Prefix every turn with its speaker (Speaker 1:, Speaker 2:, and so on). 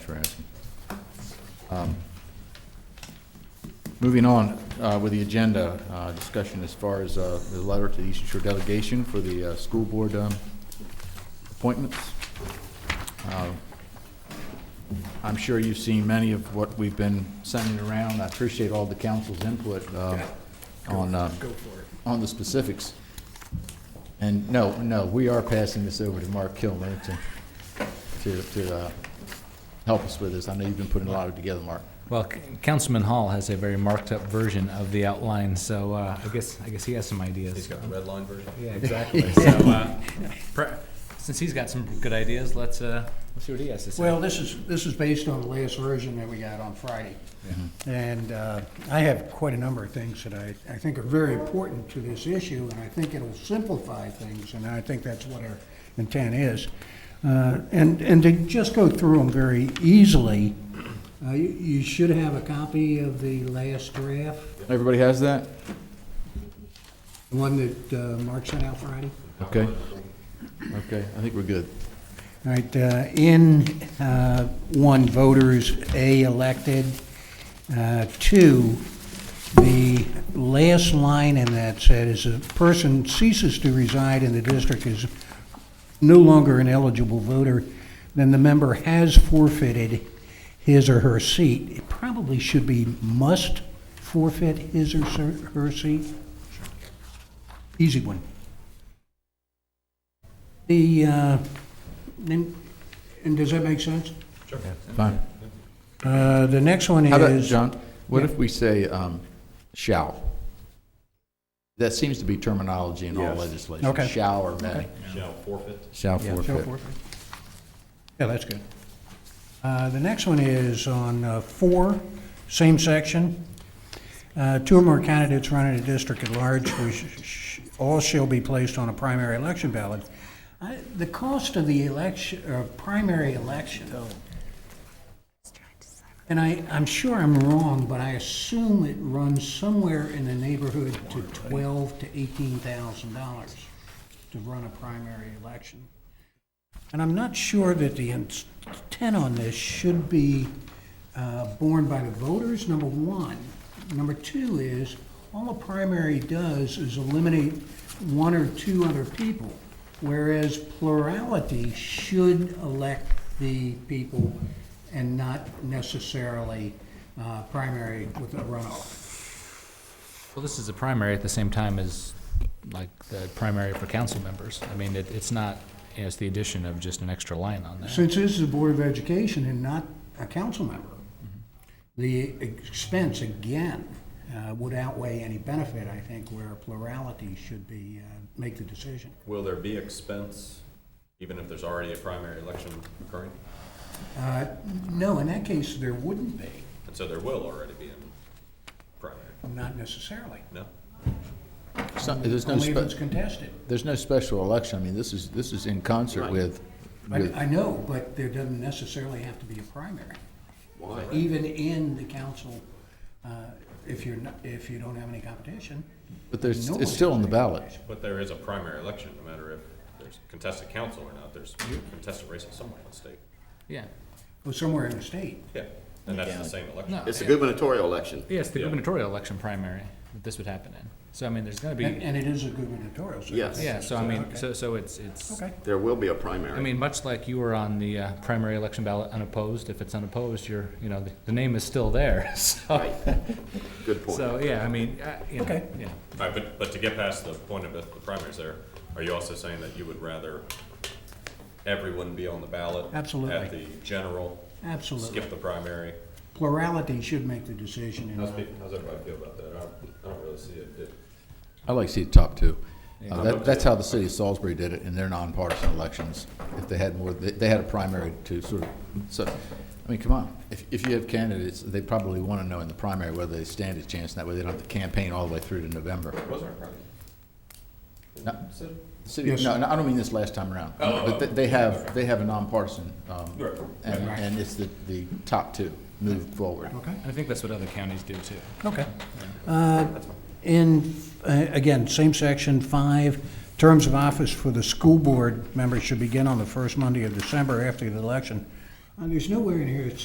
Speaker 1: Um, Moving on uh, with the agenda, uh, discussion as far as uh, the letter to the Eastern Shore delegation for the uh, school board um, appointments. Uh, I'm sure you've seen many of what we've been sending around. I appreciate all the council's input uh, on, uh, on the specifics. And no, no, we are passing this over to Mark Kilmer to, to, to uh, help us with this. I know you've been putting a lot of it together, Mark.
Speaker 2: Well, C- Councilman Hall has a very marked up version of the outline, so uh, I guess, I guess he has some ideas.
Speaker 3: He's got the red line version.
Speaker 2: Yeah, exactly. So, uh, pre- Since he's got some good ideas, let's, uh, let's see what he has to say.
Speaker 4: Well, this is, this is based on the last version that we got on Friday. And uh, I have quite a number of things that I, I think are very important to this issue, and I think it'll simplify things, and I think that's what our intent is. Uh, And, and to just go through them very easily, uh, you, you should have a copy of the last draft,
Speaker 1: Everybody has that?
Speaker 4: the one that uh, Mark sent out Friday.
Speaker 1: Okay. Okay, I think we're good.
Speaker 4: All right, uh, in uh, one, voters, A, elected. Uh, Two, the last line in that said is a person ceases to reside in the district is no longer an eligible voter, then the member has forfeited his or her seat. It probably should be must forfeit his or her- her seat. Easy one. The, uh, and, and does that make sense?
Speaker 1: Fine.
Speaker 4: Uh, the next one
Speaker 1: How about,
Speaker 4: is,
Speaker 1: John, what if we say um, shall? That seems to be terminology in all
Speaker 3: Yes.
Speaker 1: legislation.
Speaker 4: Okay.
Speaker 1: Shall or may.
Speaker 3: Shall forfeit.
Speaker 1: Shall
Speaker 2: Yeah.
Speaker 4: Shall
Speaker 1: forfeit.
Speaker 4: forfeit. yeah, that's good. Uh, the next one is on uh, four, same section. Uh, two or more candidates running a district at large, which sh- all shall be placed on a primary election ballot. I- The cost of the election, or primary election, and I, I'm sure I'm wrong, but I assume it runs somewhere in the neighborhood to twelve to eighteen thousand dollars to run a primary election. And I'm not sure that the intent on this should be uh, borne by the voters, number one. Number two is, all a primary does is eliminate one or two other people, whereas plurality should elect the people and not necessarily uh, primary with a runoff.
Speaker 2: Well, this is a primary at the same time as, like, the primary for council members. I mean, it, it's not, you know, it's the addition of just an extra line on there.
Speaker 4: Since this is a Board of Education and not a council member, the expense, again, uh, would outweigh any benefit, I think, where plurality should be, uh, make the decision.
Speaker 3: Will there be expense, even if there's already a primary election occurring?
Speaker 4: Uh, No, in that case, there wouldn't be,
Speaker 3: And so there will already be a primary,
Speaker 4: not necessarily.
Speaker 3: no?
Speaker 1: It's not- There's no,
Speaker 4: Only if
Speaker 1: spe-
Speaker 4: it's contested.
Speaker 1: there's no special election. I mean, this is, this is in concert with,
Speaker 4: I
Speaker 1: with,
Speaker 4: I know, but there doesn't necessarily have to be a primary. Why? Even in the council, uh, if you're, not- if you don't have any competition.
Speaker 1: but there's,
Speaker 4: nobody
Speaker 1: it's still on the
Speaker 4: has any
Speaker 1: ballot.
Speaker 4: competition.
Speaker 3: But there is a primary election, no matter if there's contested council or not, there's contested races somewhere in the state.
Speaker 2: Yeah.
Speaker 4: Well, somewhere in the state.
Speaker 3: Yeah, and that's the same election.
Speaker 2: No,
Speaker 5: It's a
Speaker 2: yeah.
Speaker 5: gubernatorial election.
Speaker 2: Yeah, it's the
Speaker 3: Yeah.
Speaker 2: gubernatorial election primary that this would happen in. So, I mean, there's gonna
Speaker 4: And
Speaker 2: be,
Speaker 4: and it is a gubernatorial. so-
Speaker 5: Yes.
Speaker 2: yeah, so I mean,
Speaker 4: Okay.
Speaker 2: so, so it's, it's.
Speaker 4: Okay.
Speaker 5: There will be a
Speaker 2: I
Speaker 5: primary.
Speaker 2: mean, much like you were on the uh, primary election ballot unopposed, if it's unopposed, you're, you know, the- the name is still there, so,
Speaker 5: Right. Good point.
Speaker 2: so, yeah, I mean, uh, you know,
Speaker 4: Okay.
Speaker 2: yeah.
Speaker 3: All right, but, but to get past the point of the the primaries there, are you also saying that you would rather everyone be on the ballot?
Speaker 4: Absolutely.
Speaker 3: At the general,
Speaker 4: Absolutely.
Speaker 3: skip the primary?
Speaker 4: Plurality should make the decision. in
Speaker 3: How's
Speaker 4: my-
Speaker 3: people, how's everybody feel about that? I don't, I don't really see it. It-
Speaker 1: I like to see the top two. Uh, That, that's how the city of Salisbury did it in their nonpartisan elections. If they had more, they, they had a primary to sort of, so, I mean, come on. If, if you have candidates, they probably want to know in the primary whether they stand a chance, and that way they don't have to campaign all the way through to November.
Speaker 3: Was there a primary?
Speaker 1: No.
Speaker 3: So-
Speaker 1: City,
Speaker 4: Yes.
Speaker 1: no, no, I don't mean this last time around. But they- they have, they have a nonpartisan, um,
Speaker 3: Oh, Right.
Speaker 1: and,
Speaker 4: Right.
Speaker 1: and it's the, the top two move forward.
Speaker 4: Okay.
Speaker 2: And I think that's what other counties do too.
Speaker 4: Okay. Uh, In, uh, again, same section, five, terms of office for the school board members should begin on the first Monday of December after the election. Uh, There's nowhere in here that